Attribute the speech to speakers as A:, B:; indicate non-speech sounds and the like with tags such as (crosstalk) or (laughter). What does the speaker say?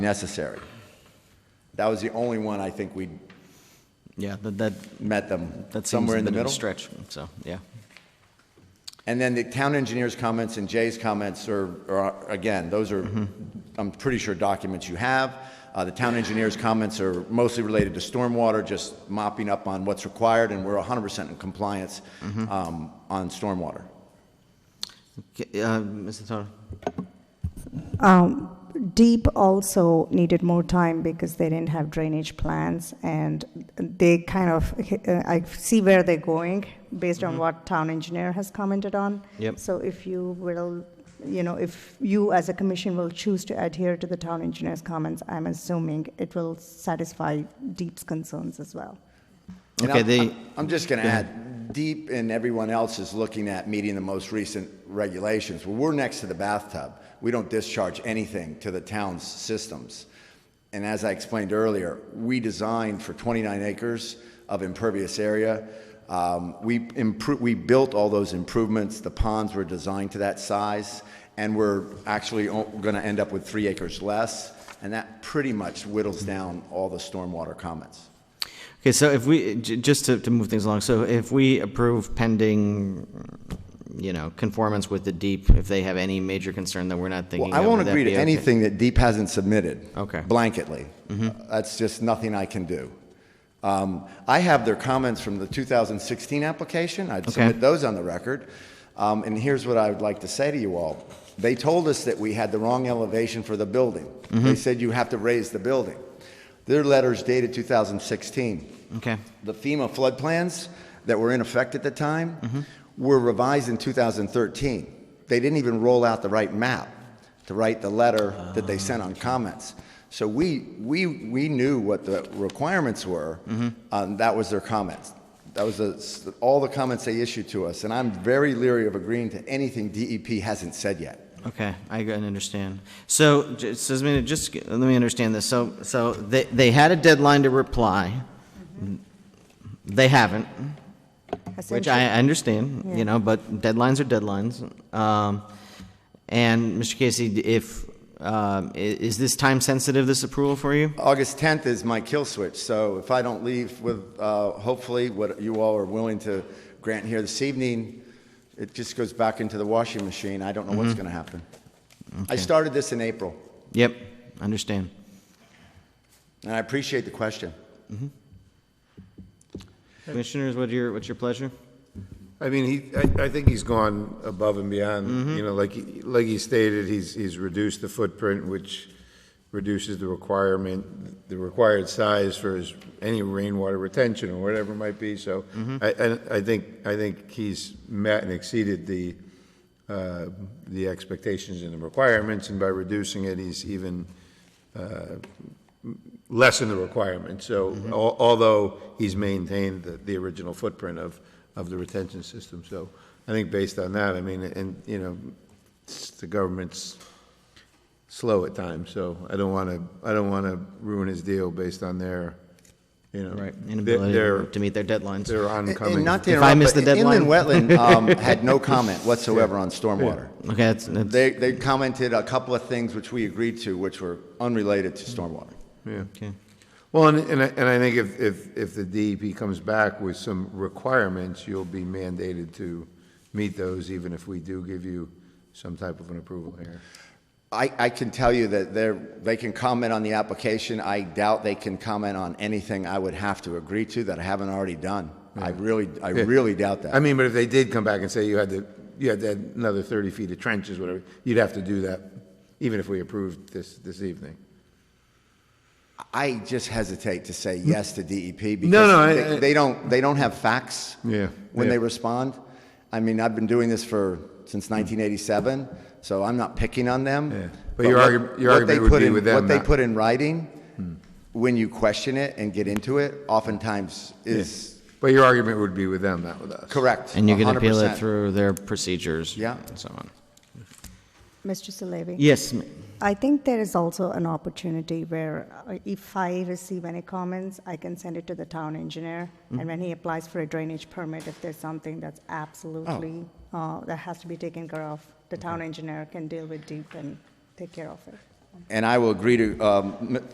A: necessary. That was the only one I think we
B: Yeah, that, that,
A: met them
B: that seems
A: somewhere
B: a
A: in the
B: bit of a
A: middle.
B: stretch, so, yeah.
A: And then the town engineer's comments and Jay's comments are, are again, those are,
B: Mm-hmm.
A: I'm pretty sure documents you have. Uh, the town engineer's comments are mostly related to stormwater, just mopping up on what's required, and we're 100% in compliance
B: Mm-hmm.
A: um, on stormwater.
B: Okay, uh, Mr. Thorne?
C: Deep also needed more time because they didn't have drainage plans and they kind of, uh, I see where they're going based on what town engineer has commented on.
B: Mm-hmm. Yep.
C: So if you will, you know, if you as a commission will choose to adhere to the town engineer's comments, I'm assuming it will satisfy Deep's concerns as well.
A: And
B: Okay,
A: I'm-
B: they-
A: I'm just going to add, DEEP and everyone else is looking at meeting the most recent regulations. Well, we're next to the bathtub. We don't discharge anything to the town's systems. And as I explained earlier, we designed for 29 acres of impervious area. Um, We impro, we built all those improvements, the ponds were designed to that size, and we're actually going to end up with three acres less, and that pretty much whittles down all the stormwater comments.
B: Okay, so if we, j- just to, to move things along, so if we approve pending, you know, conformance with the deep, if they have any major concern that we're not thinking
A: Well,
B: of.
A: I won't
B: would that
A: agree to
B: be okay?
A: anything that Deep hasn't submitted.
B: Okay. Mm-hmm.
A: Blanketly. That's just nothing I can do. Um, I have their comments from the 2016 application. I'd submit those on the record. Um, And here's what I would like to say to you all. They told us that we had the wrong elevation for the building.
B: Mm-hmm.
A: They said you have to raise the building. Their letter's dated 2016
B: Okay,
A: the FEMA flood plans that were in effect at the time were revised in 2013. They didn't even roll out the right map to write the letter that they sent on comments. So we, we, we knew what the requirements were, and that was their comments. That was the, all the comments they issued to us, and I'm very leery of agreeing to anything DEP hasn't said yet.
B: okay, I g- I understand. So, j- so, I mean, just, g- let me understand this, so, so they, they had a deadline to reply. They haven't, which I I understand, you know, but deadlines are deadlines. Um, And, Mr. Casey, if, um, i- is this time-sensitive, this approval for you?
A: August 10th is my kill switch, so if I don't leave with, uh, hopefully, what you all are willing to grant here this evening, it just goes back into the washing machine. I don't know
B: Mm-hmm.
A: what's going to happen. I started this in April,
B: Yep, understand.
A: and I appreciate the question.
B: Commissioners, what's your, what's your pleasure?
D: I mean, he, I, I think he's gone above and beyond, you know, like, he- like he stated, he's, he's reduced the footprint, which reduces the requirement, the required size for his, any rainwater retention or whatever it might be, so I, I, I think, I think he's met and exceeded the, uh, the expectations and the requirements, and by reducing it, he's even lessen the requirement. So
B: Mm-hmm.
D: al- although he's maintained the, the original footprint of, of the retention system. So I think based on that, I mean, and, you know, s- the government's slow at times, so I don't want to, I don't want to ruin his deal based on their, you know,
B: Right,
D: their,
B: inability
D: their-
B: to meet their deadlines.
D: their
A: And
D: oncoming.
A: not to
B: If I
A: interrupt,
B: miss
A: but
B: the
A: inland
B: (laughs)
A: wetland um, had no comment whatsoever on stormwater.
B: Okay, that's, that's,
A: They, they commented a couple of things which we agreed to, which were unrelated to
B: Mm-hmm.
A: stormwater.
D: Yeah.
B: okay.
D: Well, and, and I, and I think if, if, if the DEP comes back with some requirements, you'll be mandated to meet those, even if we do give you some type of an approval here.
A: I, I can tell you that they're, they can comment on the application. I doubt they can comment on anything I would have to agree to that I haven't already done. I really, I
D: Yeah.
A: really doubt
D: I
A: that.
D: mean, but if they did come back and say you had to, you had to add another thirty feet of trenches, whatever, you'd have to do that, even if we approved this, this evening.
A: I just hesitate to say yes to DEP
D: No, no, I-
A: because they- they don't, they don't have facts
D: Yeah,
A: when
D: yeah.
A: they respond. I mean, I've been doing this for, since 1987, so I'm not picking on them.
D: Hmm. Yeah. But your
A: what-
D: argu- your
A: what
D: argument
A: they
D: would
A: put
D: be
A: in-
D: with them
A: What they
D: not- Hmm.
A: put in writing, when you question it and get into it, oftentimes is
D: But your argument would be with them, not with us.
A: correct.
B: And you can appeal it
A: 100%.
B: through their procedures.
A: Yeah.
B: And so on.
C: Mr. Salevi?
B: Yes, ma-
C: I think there is also an opportunity where uh, if I receive any comments, I can send it to the town engineer. And when he applies for a drainage permit, if there's something that's absolutely, uh, that has to be taken care of, the town engineer can deal with deep and take care of it.
A: And I will agree to, um, m-